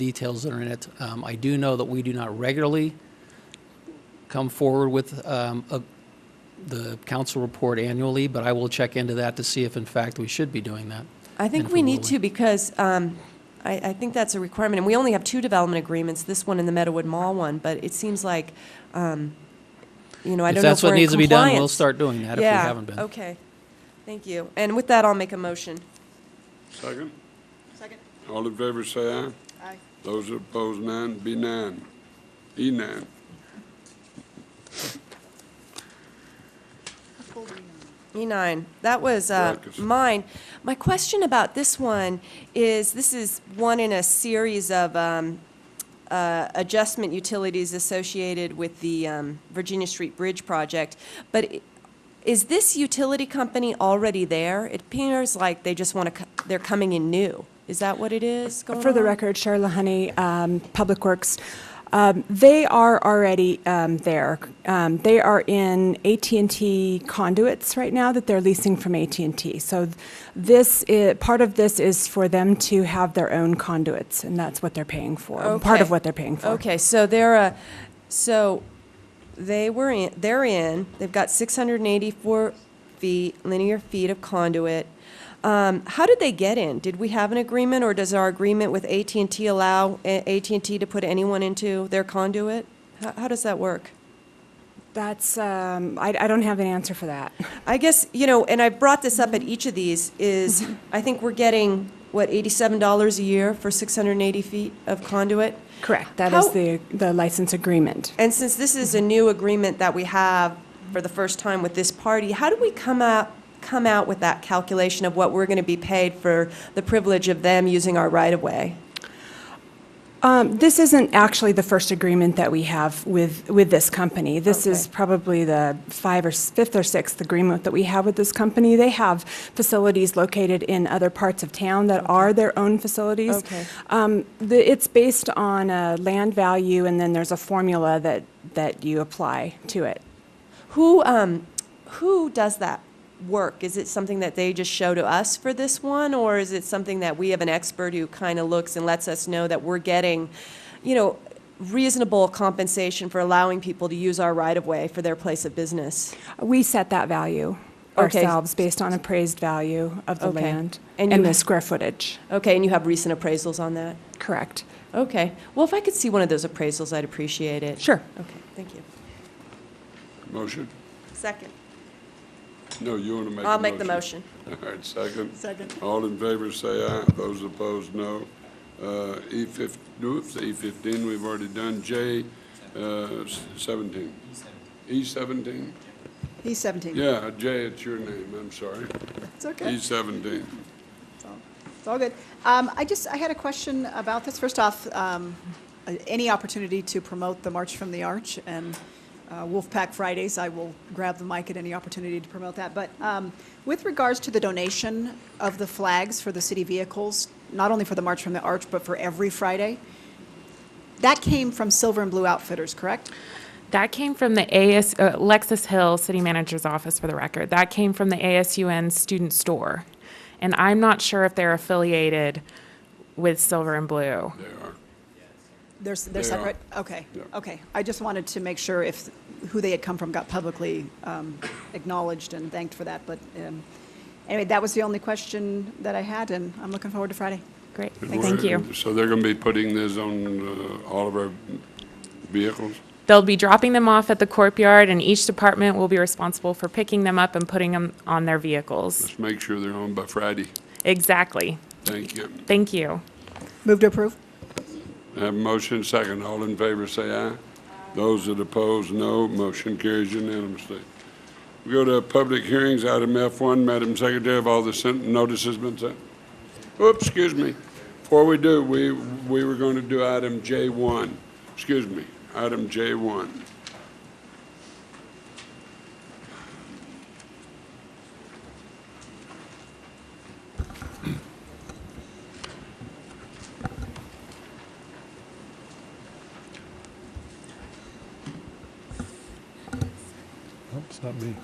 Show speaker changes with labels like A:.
A: details that are in it. Um, I do know that we do not regularly come forward with um, a- the council report annually, but I will check into that to see if in fact we should be doing that.
B: I think
A: And
B: we
A: for
B: need
A: Lily.
B: to because um, I, I think that's a requirement. And we only have two development agreements, this one and the Meadowwood Mall one, but it seems like, um, you know, I
A: If
B: don't know
A: that's
B: if we're
A: what
B: in
A: needs to be done, we'll
B: compliance.
A: start doing that if we
B: Yeah,
A: haven't been.
B: okay. Thank you. And with that, I'll make a motion.
C: Second?
D: Second.
C: All in favor, say aye.
D: Aye.
C: Those opposed, none. Be none. E none.
B: E9, E that was uh,
C: Right, 'cause-
B: mine. My question about this one is, this is one in a series of um, uh, adjustment utilities associated with the um, Virginia Street Bridge project, but i- is this utility company already there? It appears like they just want to, they're coming in new. Is that what it is going
E: For the
B: on?
E: record, Charla Honey, um, Public Works, um, they are already um, there. Um, They are in AT&T conduits right now that they're leasing from at&T. So this, i- part of this is for them to have their own conduits, and that's what they're paying for, part of
B: Okay.
E: what they're paying for.
B: Okay, so they're a, so they were in, they're in, they've got six hundred and eighty-four feet, linear feet of conduit. Um, how did they get in? Did we have an agreement, or does our agreement with AT&T allow at and T to put anyone into their conduit? How, how does that work?
E: That's, um, I I don't have an answer for that.
B: I guess, you know, and I brought this up at each of these, is I think we're getting, what, eighty-seven dollars a year for six hundred and eighty feet of conduit?
E: Correct, that is
B: How-
E: the the license agreement.
B: And since this is a new agreement that we have for the first time with this party, how do we come out, come out with that calculation of what we're going to be paid for the privilege of them using our right-of-way?
E: Um, This isn't actually the first agreement that we have with, with this company. This is
B: Okay.
E: probably the five or, s- fifth or sixth agreement that we have with this company. They have facilities located in other parts of town that are their own facilities.
B: Okay.
E: Um, the- It's based on a land value, and then there's a formula that, that you apply to it.
B: Who, um, who does that work? Is it something that they just show to us for this one, or is it something that we have an expert who kind of looks and lets us know that we're getting, you know, reasonable compensation for allowing people to use our right-of-way for their place of business?
E: We set that value
B: Okay.
E: ourselves based on appraised value of the
B: Okay.
E: land
B: And you
E: and the
B: ha-
E: square footage.
B: Okay, and you have recent appraisals on that?
E: Correct.
B: Okay. Well, if I could see one of those appraisals, I'd appreciate it.
E: Sure.
B: Okay, thank you.
C: Motion?
B: Second.
C: No, you want to make a motion?
B: I'll make the motion.
C: All right, second.
D: Second.
C: All in favor, say aye. Those opposed, no. Uh, E fif, oops, E fifteen, we've already done. J uh, s- seventeen. E seventeen?
D: He's 17.
C: Yeah, J, it's your name, I'm sorry.
D: It's okay.
C: E seventeen.
D: It's all- It's all good. Um, I just, I had a question about this. First off, um, uh, any opportunity to promote the March from the Arch and uh, Wolfpack Fridays, I will grab the mic at any opportunity to promote that. But um, with regards to the donation of the flags for the city vehicles, not only for the March from the Arch, but for every Friday, that came from Silver and Blue Outfitters, correct?
F: That came from the AS, uh, Lexus Hill City Manager's Office for the record. That came from the ASUN student store. And I'm not sure if they're affiliated with Silver and Blue.
C: They are.
D: They're, s- they're
C: They are.
D: separate? Okay,
C: Yeah.
D: okay. I just wanted to make sure if, who they had come from got publicly um, acknowledged and thanked for that, but um, anyway, that was the only question that I had, and I'm looking forward to Friday.
F: Great,
C: Good
F: thank
C: work.
F: you.
C: So they're going to be putting this on uh, all of our vehicles?
F: They'll be dropping them off at the courtyard and each department will be responsible for picking them up and putting them on their vehicles.
C: Let's make sure they're home by Friday.
F: Exactly.
C: Thank you.
F: Thank you.
D: Move to approve?
C: Have a motion second. All in favor, say aye. Those that oppose, no. Motion carries unanimously. We go to public hearings, item F1. Madam Secretary, have all the sent notices been sent? Oops, excuse me. Before we do, we, we were going to do item J1. Excuse me, item J1.
G: Nope, it's not me.